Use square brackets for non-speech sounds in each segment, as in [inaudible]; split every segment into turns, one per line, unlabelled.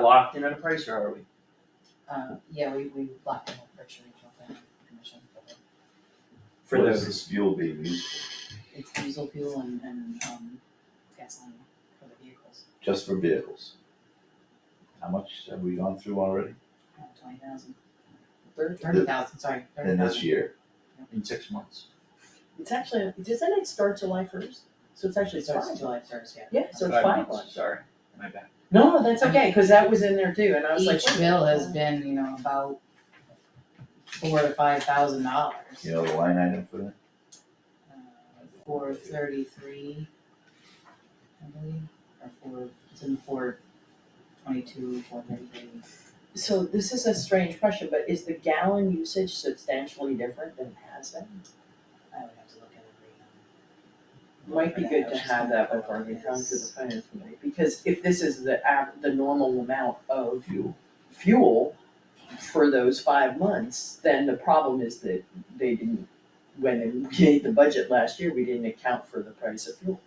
locked in on a price or are we?
Uh, yeah, we, we locked in with Berkshire Regional Planning Commission for the,
For
What is
the,
this fuel being used for?
it's diesel fuel and, and, um, gasoline for the vehicles,
Just for vehicles? How much have we gone through already
uh, twenty thousand. Thirty, thirty thousand, sorry, thirty
in this
thousand.
year? In six months?
It's actually, doesn't it start July first? So it's actually
Starts
five.
July first, yeah.
Yeah, so it's
five
five
months,
months.
sorry, my bad.
No, that's okay, cause that was in there too, and I was like.
Each bill has been, you know, about four to five thousand dollars. uh,
You know the line item for that?
Four thirty-three, I believe, or four, it's in four twenty-two, four thirty-three.
So this is a strange question, but is the gallon usage substantially different than it has been?
I would have to look at it.
Might be good to have that before we come to the finance committee, because if this is the av- the normal amount of
Fuel.
fuel for those five months, then the problem is that they didn't, when they made the budget last year, we didn't account for the price of fuel.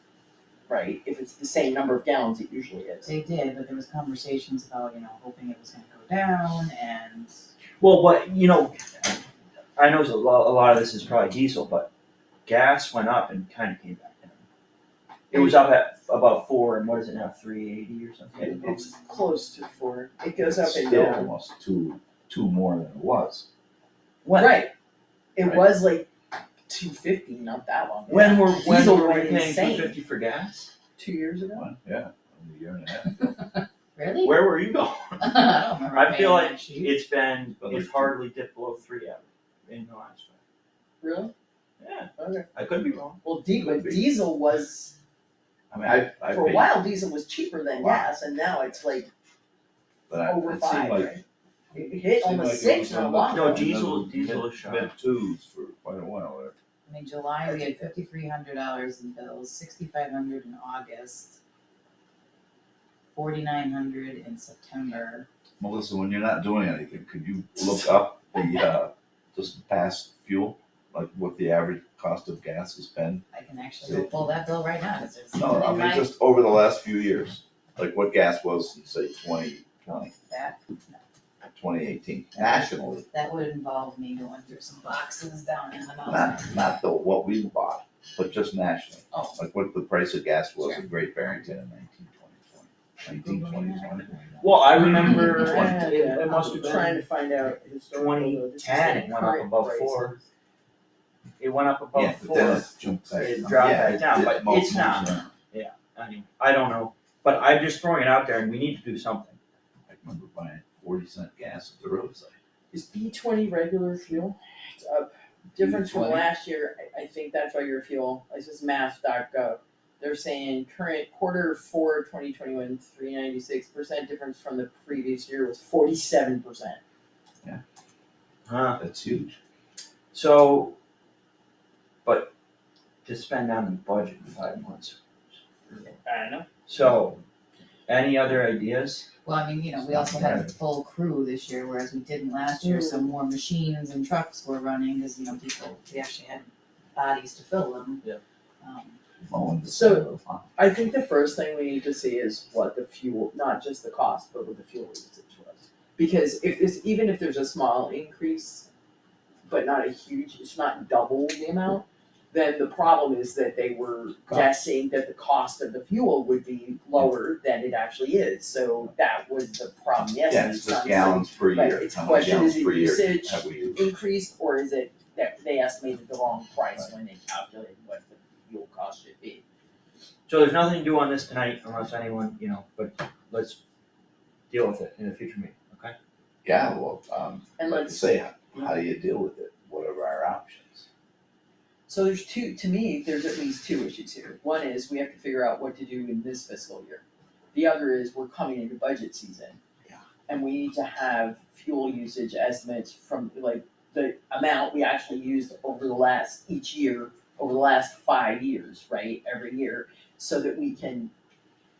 Right, if it's the same number of gallons it usually is.
They did, but there was conversations about, you know, hoping it was gonna go down and.
Well, but, you know, I know a lot, a lot of this is probably diesel, but gas went up and kinda came back down. It was up at about four and what is it now, three eighty or
It-
something?
It's close to four, it goes up
It's
and
Still
down.
almost two, two more than it was.
When,
Right, it
Right.
was like two fifty, not that long ago.
when were, when
Diesel
were we
went
paying
insane.
two fifty for gas?
Two years ago?
One, yeah, a year and a half.
Really? [laughs]
Where were you going?
I don't remember
I feel
paying
like
that sheet.
It's been,
But
it's
like-
hardly dipped below three ever in the last
Really?
five. Yeah,
Okay.
I could be wrong.
Well, di-
Could
but
be.
diesel was,
I mean, I, I
for a
paid,
while, diesel was cheaper than
Wow.
gas, and now it's like
but I,
over
it seemed
five,
like.
right? It hit almost six in a while.
No, diesel- diesel is shot.
Mid twos for quite a while there.
I mean, July, we had fifty-three hundred dollars in bills, sixty-five hundred in August, forty-nine hundred in September.
Melissa, when you're not doing anything, could you look up the, uh, just past fuel? Like what the average cost of gas has been?
I can actually go pull that bill right now, 'cause it's
No, I
in
mean,
my
just over the last few years, like what gas was in say twenty twenty,
back.
twenty eighteen, nationally.
That would involve me going through some boxes down in the mountains.
Not, not the, what we bought, but just nationally.
Oh.
Like what the price of gas was in Great Barrington in nineteen twenty twenty, nineteen twenty twenty.
Well, I remember,
[laughs] Yeah,
it, it must have
I'm Trying
been
to find out historical, though, this is
2010,
the
it went up
current
above
price.
four. It went up above
Yeah, but then
Oh, four,
it jumped back.
It
down.
dropped
Yeah,
back down,
it
but
multiple
it's not.
times.
I mean, I don't know, but I'm just throwing it out there and we need to do something.
I remember buying forty cent gas at the roadside.
Is B twenty regular fuel? It's up, difference from
B20?
last year, I, I think that's regular fuel, this is mass.gov. They're saying current quarter four, twenty twenty-one, three ninety-six percent, difference from the previous year was forty-seven percent.
Huh,
That's huge.
so, but to spend on the budget in five months.
I don't know.
So, any other ideas?
Well, I mean, you know, we also had a full crew this year, whereas we didn't last year, so more machines and trucks were running, cause you know, people, we actually had bodies to fill them.
Yeah.
Um,
Mowing the
So-
snow.
I think the first thing we need to see is what the fuel, not just the cost, but what the fuel usage was. Because if this, even if there's a small increase, but not a huge, it's not double the amount, then the problem is that they were guessing that the cost of the fuel would be lower than it actually is, so that was the problem, yes,
Yeah,
it's
it's just
not-
gallons per
Right,
year,
it's
how many
question,
gallons
is it
per year
usage?
have we used?
increased, or is it that they estimated the wrong price when they calculated what the fuel cost should be?
So there's nothing to do on this tonight unless anyone, you know, but let's deal with it in a future meeting, okay?
Yeah, well, um,
And
like you
let's-
say, how, how do you deal with it? What are our options?
So there's two, to me, there's at least two issues here. One is we have to figure out what to do in this fiscal year. The other is we're coming into budget season.
Yeah.
And we need to have fuel usage estimates from like the amount we actually used over the last, each year, over the last five years, right, every year, so that we can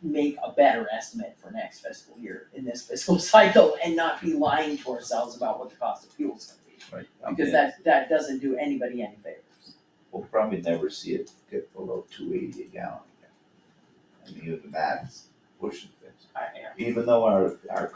make a better estimate for next fiscal year in this fiscal [laughs] cycle and not be lying to ourselves about what the cost of fuel is gonna be.
Right, I
Because
mean,
that, that doesn't do anybody any favors.
we'll probably never see it get below two eighty a gallon again. And even that's pushing things,
I- I-
even though our, our